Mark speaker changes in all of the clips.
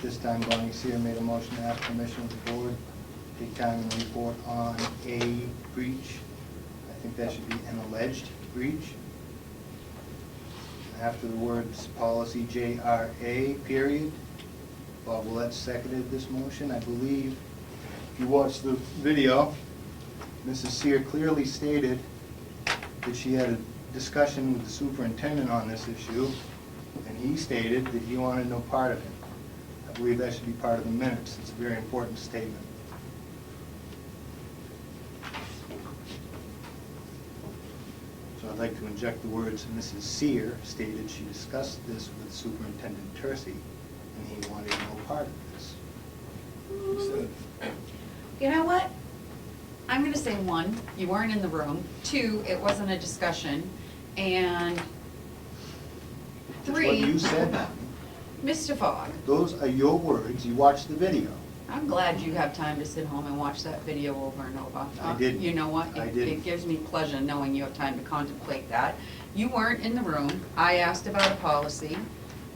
Speaker 1: This time Bonnie Seer made a motion to ask permission of the board to take time and report on a breach. I think that should be an alleged breach. After the words policy JRA, period. Bob Willett seconded this motion, I believe. If you watch the video, Mrs. Seer clearly stated that she had a discussion with the superintendent on this issue, and he stated that he wanted no part of it. I believe that should be part of the minutes, it's a very important statement. So I'd like to inject the words, Mrs. Seer stated she discussed this with Superintendent Tursi, and he wanted no part of this.
Speaker 2: You know what? I'm gonna say one, you weren't in the room. Two, it wasn't a discussion. And
Speaker 1: It's what you
Speaker 2: three,
Speaker 1: said.
Speaker 2: Mr. Fogg,
Speaker 1: Those are your words, you watched the video.
Speaker 2: I'm glad you have time to sit home and watch that video over and over. Uh,
Speaker 1: I didn't.
Speaker 2: You know what?
Speaker 1: I
Speaker 2: It-
Speaker 1: didn't.
Speaker 2: It gives me pleasure knowing you have time to contemplate that. You weren't in the room. I asked about a policy,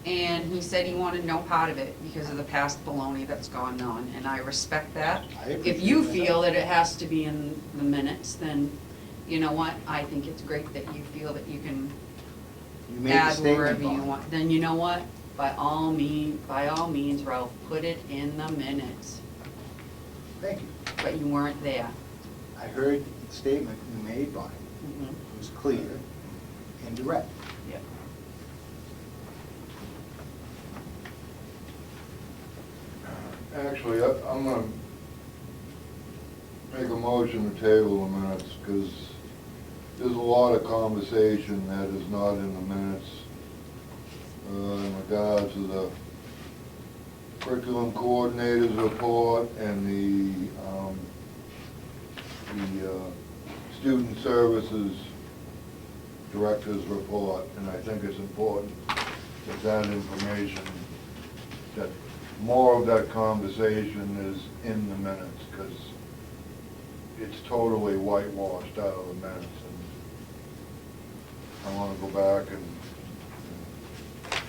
Speaker 2: and he said he wanted no part of it because of the past baloney that's gone on, and I respect that.
Speaker 1: I
Speaker 2: If
Speaker 1: appreciate
Speaker 2: you
Speaker 1: that.
Speaker 2: feel that it has to be in the minutes, then, you know what? I think it's great that you feel that you can
Speaker 1: You made a
Speaker 2: add wherever
Speaker 1: statement
Speaker 2: you
Speaker 1: on it.
Speaker 2: want. Then you know what? By all mean, by all means, Ralph, put it in the minutes
Speaker 1: Thank you.
Speaker 2: but you weren't there.
Speaker 1: I heard the statement you made, Bonnie.
Speaker 2: Mm-hmm.
Speaker 1: It was clear and direct.
Speaker 2: Yep.
Speaker 3: Actually, I- I'm gonna make a motion to table the minutes, because there's a lot of conversation that is not in the minutes uh, in regards to the curriculum coordinator's report and the, um, the uh, student services director's report, and I think it's important that that information, that more of that conversation is in the minutes, because it's totally whitewashed out of the minutes, and I want to go back and and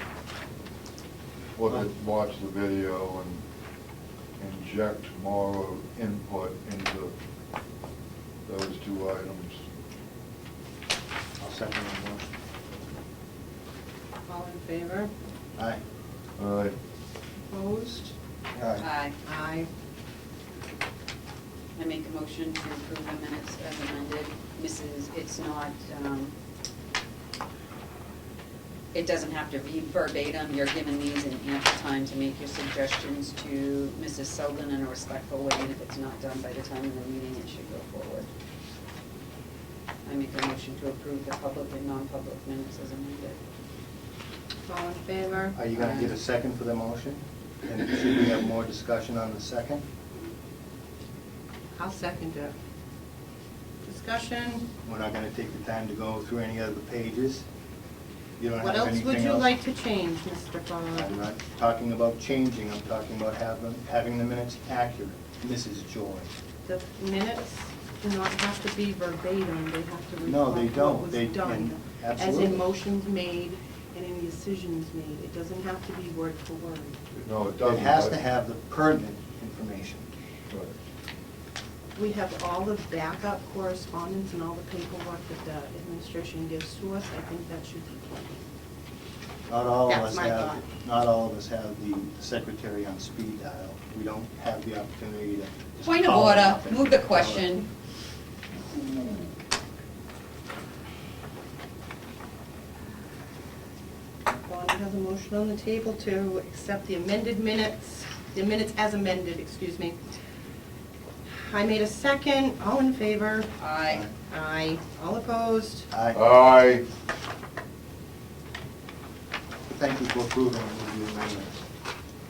Speaker 3: look at, watch the video and inject more of input into those two items.
Speaker 1: I'll second the motion.
Speaker 4: All in favor?
Speaker 1: Aye.
Speaker 3: All right.
Speaker 4: Opposed?
Speaker 1: Aye.
Speaker 4: Aye.
Speaker 2: I make a motion to approve the minutes as amended. Mrs., it's not, um, it doesn't have to be verbatim. You're given these in ample time to make your suggestions to Mrs. Selden in a respectful way, and if it's not done by the time of the meeting, it should go forward. I make a motion to approve the public and non-public minutes as amended.
Speaker 4: All in favor?
Speaker 1: Are you gonna get a second for the motion? And should we have more discussion on the second?
Speaker 4: I'll second it. Discussion,
Speaker 1: We're not gonna take the time to go through any other pages. You don't
Speaker 4: what
Speaker 1: have
Speaker 4: else
Speaker 1: anything else?
Speaker 4: would you like to change, Mr.
Speaker 1: I'm
Speaker 4: Fogg?
Speaker 1: not talking about changing, I'm talking about having, having the minutes accurate. Mrs. Joy.
Speaker 4: The minutes do not have to be verbatim, they have to
Speaker 1: No, they
Speaker 4: reflect
Speaker 1: don't.
Speaker 4: what was
Speaker 1: They- and-
Speaker 4: done. As
Speaker 1: absolutely.
Speaker 4: in motions made and any decisions made, it doesn't have to be word for word.
Speaker 3: No, it
Speaker 1: It
Speaker 3: doesn't.
Speaker 1: has to
Speaker 3: but-
Speaker 1: have the pertinent information.
Speaker 3: Right.
Speaker 4: We have all the backup correspondence and all the paperwork that the administration gives to us, I think that should be plenty.
Speaker 1: Not all of
Speaker 4: That's
Speaker 1: us
Speaker 4: my
Speaker 1: have,
Speaker 4: thought.
Speaker 1: not all of us have the secretary on speed dial. We don't have the opportunity to. just
Speaker 2: Point of
Speaker 1: call
Speaker 2: order,
Speaker 1: up and-
Speaker 2: move uh, the question.
Speaker 4: Bonnie has a motion on the table to accept the amended minutes, the minutes as amended, excuse me. I made a second, all in favor?
Speaker 2: Aye.
Speaker 4: Aye. All opposed?
Speaker 3: Uh.
Speaker 1: Aye.
Speaker 3: Aye.
Speaker 1: Thank you for approving the amendments.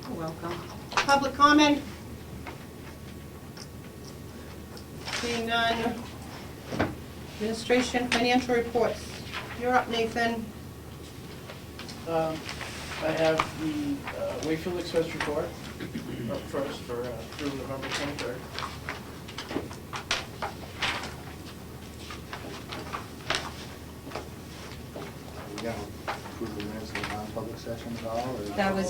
Speaker 4: You're welcome. Public comment? Seeing none. Administration financial reports. You're up, Nathan.
Speaker 5: Um, I have the uh, Wakefield Express report up first for, uh, through November twenty-third.
Speaker 1: Are we gonna approve the minutes in non-public session at all, or?
Speaker 2: That was